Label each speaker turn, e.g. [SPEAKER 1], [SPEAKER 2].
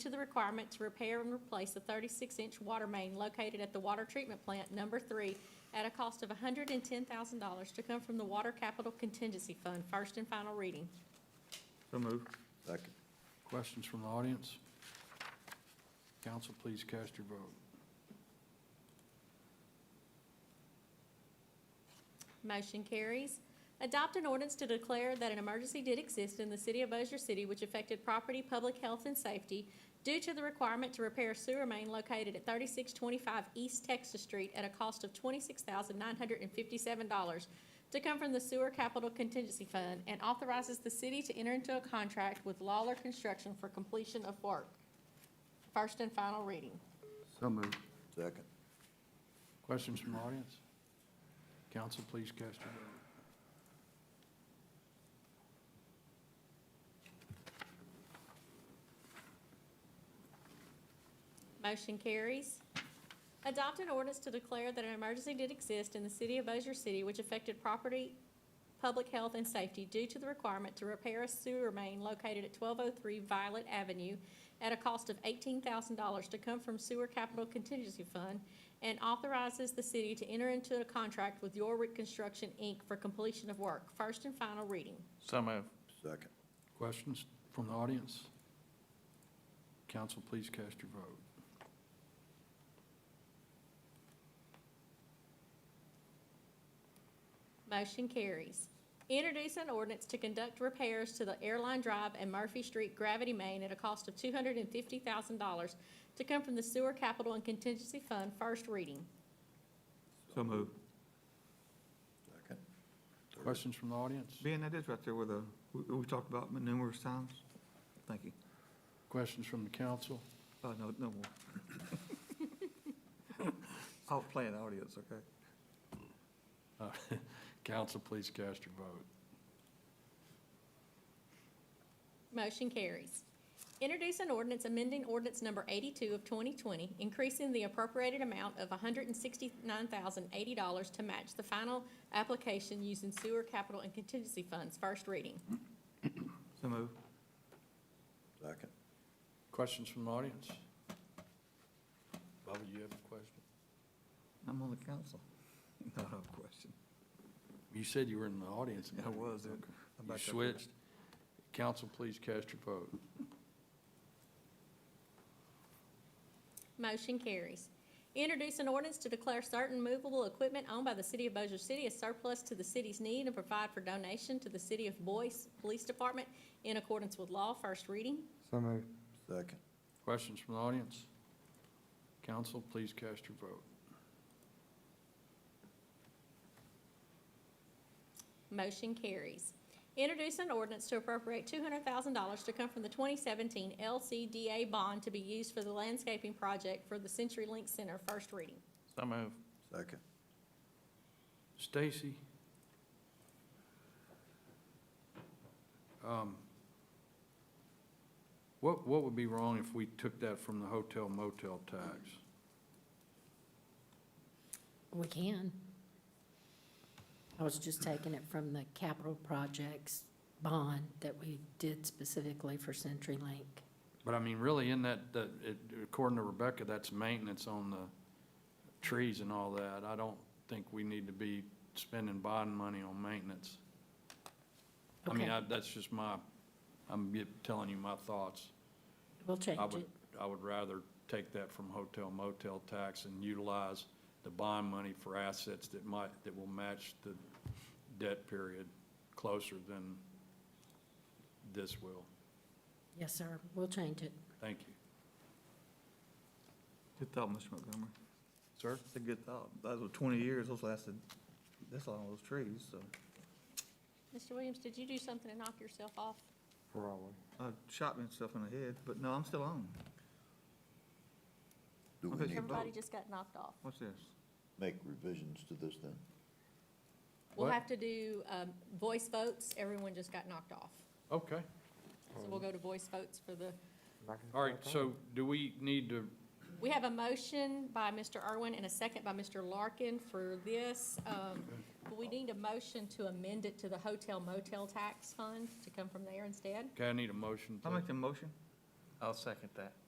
[SPEAKER 1] to the requirement to repair and replace the thirty-six inch water main located at the water treatment plant number three at a cost of hundred and ten thousand dollars to come from the Water Capital Contingency Fund, first and final reading.
[SPEAKER 2] So moved.
[SPEAKER 3] Second.
[SPEAKER 4] Questions from the audience? Council, please cast your vote.
[SPEAKER 1] Motion carries. Adopt an ordinance to declare that an emergency did exist in the city of Bossier City which affected property, public health, and safety due to the requirement to repair sewer main located at thirty-six twenty-five East Texas Street at a cost of twenty-six thousand nine hundred and fifty-seven dollars to come from the Sewer Capital Contingency Fund and authorizes the city to enter into a contract with Lawler Construction for completion of work. First and final reading.
[SPEAKER 2] So moved.
[SPEAKER 3] Second.
[SPEAKER 4] Questions from the audience? Council, please cast your vote.
[SPEAKER 1] Motion carries. Adopt an ordinance to declare that an emergency did exist in the city of Bossier City which affected property, public health, and safety due to the requirement to repair a sewer main located at twelve oh three Violet Avenue at a cost of eighteen thousand dollars to come from Sewer Capital Contingency Fund and authorizes the city to enter into a contract with York Construction, Inc. for completion of work. First and final reading.
[SPEAKER 2] So moved.
[SPEAKER 3] Second.
[SPEAKER 4] Questions from the audience? Council, please cast your vote.
[SPEAKER 1] Motion carries. Introduce an ordinance to conduct repairs to the Airline Drive and Murphy Street gravity main at a cost of two hundred and fifty thousand dollars to come from the Sewer Capital and Contingency Fund, first reading.
[SPEAKER 2] So moved.
[SPEAKER 3] Second.
[SPEAKER 4] Questions from the audience?
[SPEAKER 2] Ben, that is right there where the, we, we talked about numerous times. Thank you.
[SPEAKER 4] Questions from the council?
[SPEAKER 2] Oh, no, no more. I'll play an audience, okay?
[SPEAKER 4] Uh, Council, please cast your vote.
[SPEAKER 1] Motion carries. Introduce an ordinance amending ordinance number eighty-two of twenty twenty, increasing the appropriated amount of hundred and sixty-nine thousand eighty dollars to match the final application using Sewer Capital and Contingency Funds, first reading.
[SPEAKER 2] So moved.
[SPEAKER 3] Second.
[SPEAKER 4] Questions from the audience? Bubba, you have a question?
[SPEAKER 2] I'm on the council. No, no question.
[SPEAKER 4] You said you were in the audience.
[SPEAKER 2] Yeah, I was. uh,
[SPEAKER 4] Okay.
[SPEAKER 2] I'm
[SPEAKER 4] You
[SPEAKER 2] back up.
[SPEAKER 4] switched. Council, please cast your vote.
[SPEAKER 1] Motion carries. Introduce an ordinance to declare certain movable equipment owned by the city of Bossier City as surplus to the city's need and provide for donation to the city of Boyce Police Department in accordance with law, first reading.
[SPEAKER 5] So moved.
[SPEAKER 3] Second.
[SPEAKER 4] Questions from the audience? Council, please cast your vote.
[SPEAKER 1] Motion carries. Introduce an ordinance to appropriate two hundred thousand dollars to come from the twenty seventeen LCDA bond to be used for the landscaping project for the Century Link Center, first reading.
[SPEAKER 2] So moved.
[SPEAKER 3] Second.
[SPEAKER 4] Stacy? Um, What, what would be wrong if we took that from the hotel motel tax?
[SPEAKER 6] We can. I was just taking it from the capital projects bond that we did specifically for CenturyLink.
[SPEAKER 4] But I mean, really, in that, that, it- according to Rebecca, that's maintenance on the trees and all that. I don't think we need to be spending bond money on maintenance. I mean,
[SPEAKER 6] Okay.
[SPEAKER 4] I, that's just my, I'm get- telling you my thoughts.
[SPEAKER 6] We'll
[SPEAKER 4] I
[SPEAKER 6] change
[SPEAKER 4] would,
[SPEAKER 6] it.
[SPEAKER 4] I would rather take that from hotel motel tax and utilize the bond money for assets that might, that will match the debt period closer than this will.
[SPEAKER 6] Yes, sir, we'll change it.
[SPEAKER 4] Thank you.
[SPEAKER 2] Good thought, Mr. Montgomery.
[SPEAKER 4] Sir?
[SPEAKER 2] It's a good thought. Those were twenty years, those lasted, this long, those trees, so.
[SPEAKER 1] Mr. Williams, did you do something to knock yourself off?
[SPEAKER 5] Probably.
[SPEAKER 2] I shot myself in the head, but no, I'm still on.
[SPEAKER 3] Do we
[SPEAKER 2] Okay.
[SPEAKER 3] need to
[SPEAKER 1] Everybody just got knocked off.
[SPEAKER 2] What's this?
[SPEAKER 3] make revisions to this then?
[SPEAKER 1] We'll
[SPEAKER 4] What?
[SPEAKER 1] have to do, um, voice votes. Everyone just got knocked off.
[SPEAKER 4] Okay.
[SPEAKER 1] So we'll go to voice votes for the,
[SPEAKER 4] All right, so do we need to,
[SPEAKER 1] we have a motion by Mr. Irwin and a second by Mr. Larkin for this. Um, but we need a motion to amend it to the hotel motel tax fund to come from there instead.
[SPEAKER 4] okay, I need a motion
[SPEAKER 2] I'll
[SPEAKER 4] to,
[SPEAKER 2] make the motion. I'll second that.